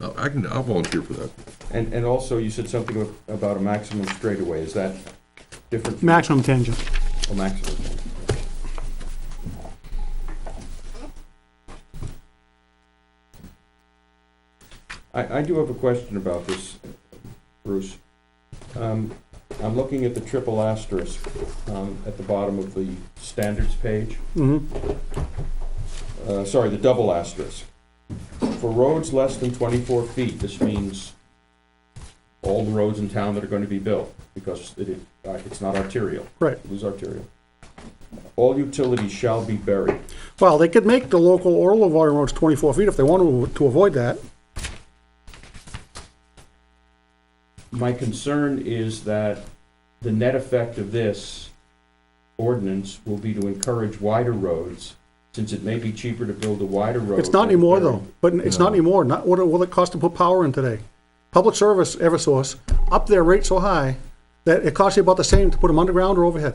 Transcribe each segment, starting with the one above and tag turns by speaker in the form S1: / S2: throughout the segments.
S1: I'll- Oh, I can, I'll volunteer for that.
S2: And, and also, you said something about a maximum straightaway, is that different? from
S3: maximum tangent.
S2: A maximum. I, I do have a question about this, Bruce. Um, I'm looking at the triple asterisk, um, at the bottom of the standards page
S3: Mhm.
S2: uh, sorry, the double asterisk. For roads less than twenty-four feet, this means all the roads in town that are gonna be built, because it, i- uh, it's not arterial.
S3: Right.
S2: It was arterial. All utilities shall be buried.
S3: Well, they could make the local or Livonia roads 24 feet if they wanted to- to avoid that.
S2: My concern is that the net effect of this ordinance will be to encourage wider roads, since it may be cheaper to build a wider road.
S3: It's not
S2: than
S3: anymore,
S2: bury-
S3: though, but it's not anymore, not what it, what it costs to put power in today. Public service, Eversource, up their rate so high that it costs you about the same to put them underground or overhead.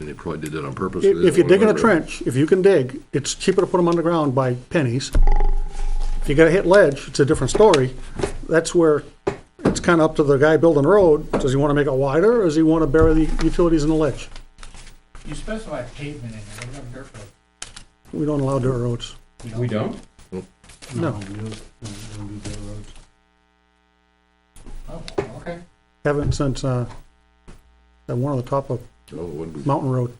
S1: And they probably did that on purpose.
S3: If if you're digging a
S1: Whatever.
S3: trench, if you can dig, it's cheaper to put them underground by pennies. If you gotta hit ledge, it's a different story. That's where it's kinda up to the guy building the road. Does he wanna make it wider, or does he wanna bury the utilities in the ledge?
S4: You specify pavement in there, what about dirt road?
S3: We don't allow dirt roads.
S2: We don't?
S3: No,
S4: Oh, okay.
S3: haven't since, uh, that one on the top of
S1: Oh, what we-
S3: Mountain Road.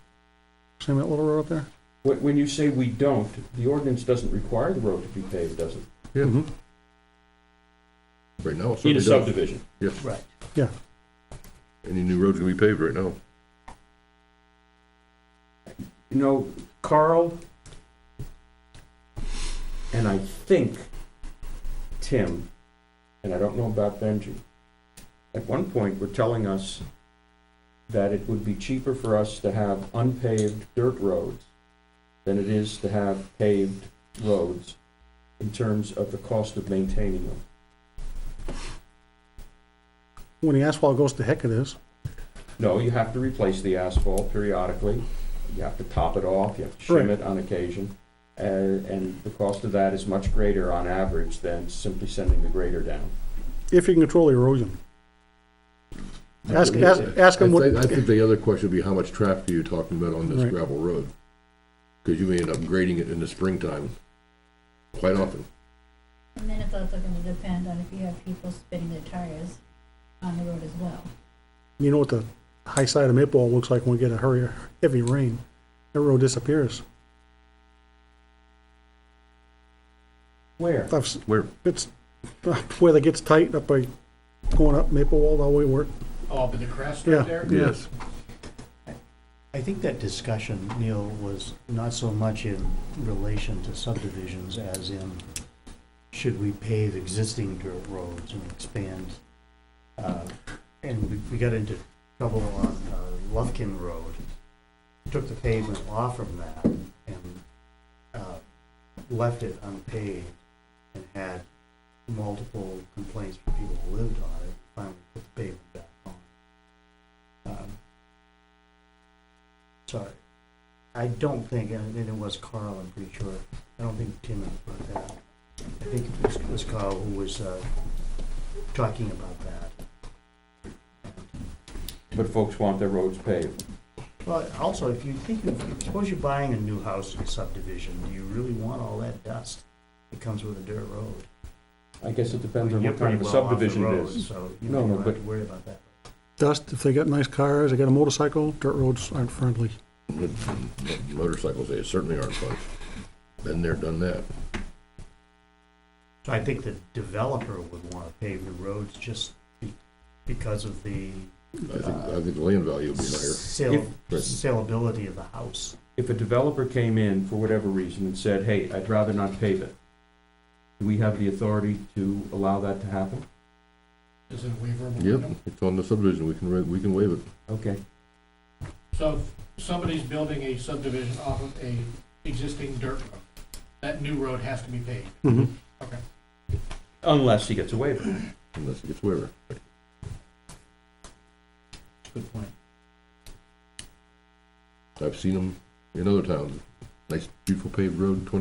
S3: See that little road up there?
S2: When, when you say we don't, the ordinance doesn't require the road to be paved, does it?
S3: Mm-hmm.
S1: Yeah. Right now, it
S2: In a
S1: certainly does.
S2: subdivision.
S1: Yes,
S4: Right.
S3: Yeah.
S1: any new road's gonna be paved right now.
S2: You know, Carl, and I think Tim, and I don't know about Benji, at one point were telling us that it would be cheaper for us to have unpaved dirt roads than it is to have paved roads in terms of the cost of maintaining them.
S3: When the asphalt goes to heck it is.
S2: No, you have to replace the asphalt periodically, you have to top it off, you have to shim
S3: Right.
S2: it on occasion. And, and the cost of that is much greater on average than simply sending the grader down.
S3: If you can control the erosion. Ask, ask, ask them
S1: I
S3: what,
S1: think- I think the other question would be, how much traffic are you talking about on this
S3: Right.
S1: gravel road? Because you may end up grading it in the springtime, quite often.
S5: And then it's also gonna depend on if you have people spinning their tires on the road as well.
S3: you know what the high side of Maple looks like when we get a hurry, heavy rain. That road disappears.
S2: Where?
S3: I've s-
S1: Where?
S3: It's, where it gets tight up by going up Maple Wall, all the way where,
S4: Oh, but the crest
S3: Yeah.
S4: right there?
S1: Yes.
S6: I think that discussion, Neil, was not so much in relation to subdivisions as in, should we pave existing dirt roads and expand? uh, And we- we got into trouble on uh, Lufkin Road, took the pavement off from that and uh, left it unpaved and had multiple complaints from people who lived on it, finally put the pavement back on. Um, Sorry. I don't think, and it was Carl, I'm pretty sure. I don't think Tim brought that up. I think it was- it was Carl who was uh, talking about that.
S2: But folks want their roads paved.
S6: Well, also, if you think, of- suppose you're buying a new house in a subdivision, do you really want all that dust that comes with a dirt road?
S2: I guess it depends on
S6: You're
S2: what kind of
S6: pretty
S2: a
S6: well off the
S2: subdivision it
S6: road,
S2: is.
S6: So you
S2: No,
S6: don't
S2: no,
S6: have to
S2: but-
S6: worry about that.
S3: dust, if they got nice cars, they got a motorcycle, dirt roads aren't friendly.
S1: Motorcycles, they certainly aren't fun. Been there, done that.
S6: So I think the developer would want to pave the roads just be- because of the
S1: I think, I think the land value would be higher.
S6: sale,
S1: Right.
S6: saleability of the house.
S2: If a developer came in for whatever reason and said, hey, I'd rather not pave it, do we have the authority to allow that to happen?
S4: Is it a waiver? of
S1: Yep,
S4: window?
S1: it's on the subdivision, we can, ra- we can waive it.
S2: Okay.
S4: So if somebody's building a subdivision off of a existing dirt road, that new road has to be paved.
S3: Mm-hmm.
S2: Unless he gets a waiver.
S1: Unless it gets waiver.
S4: Good point.
S1: I've seen them in other towns. Nice, beautiful paved road, twenty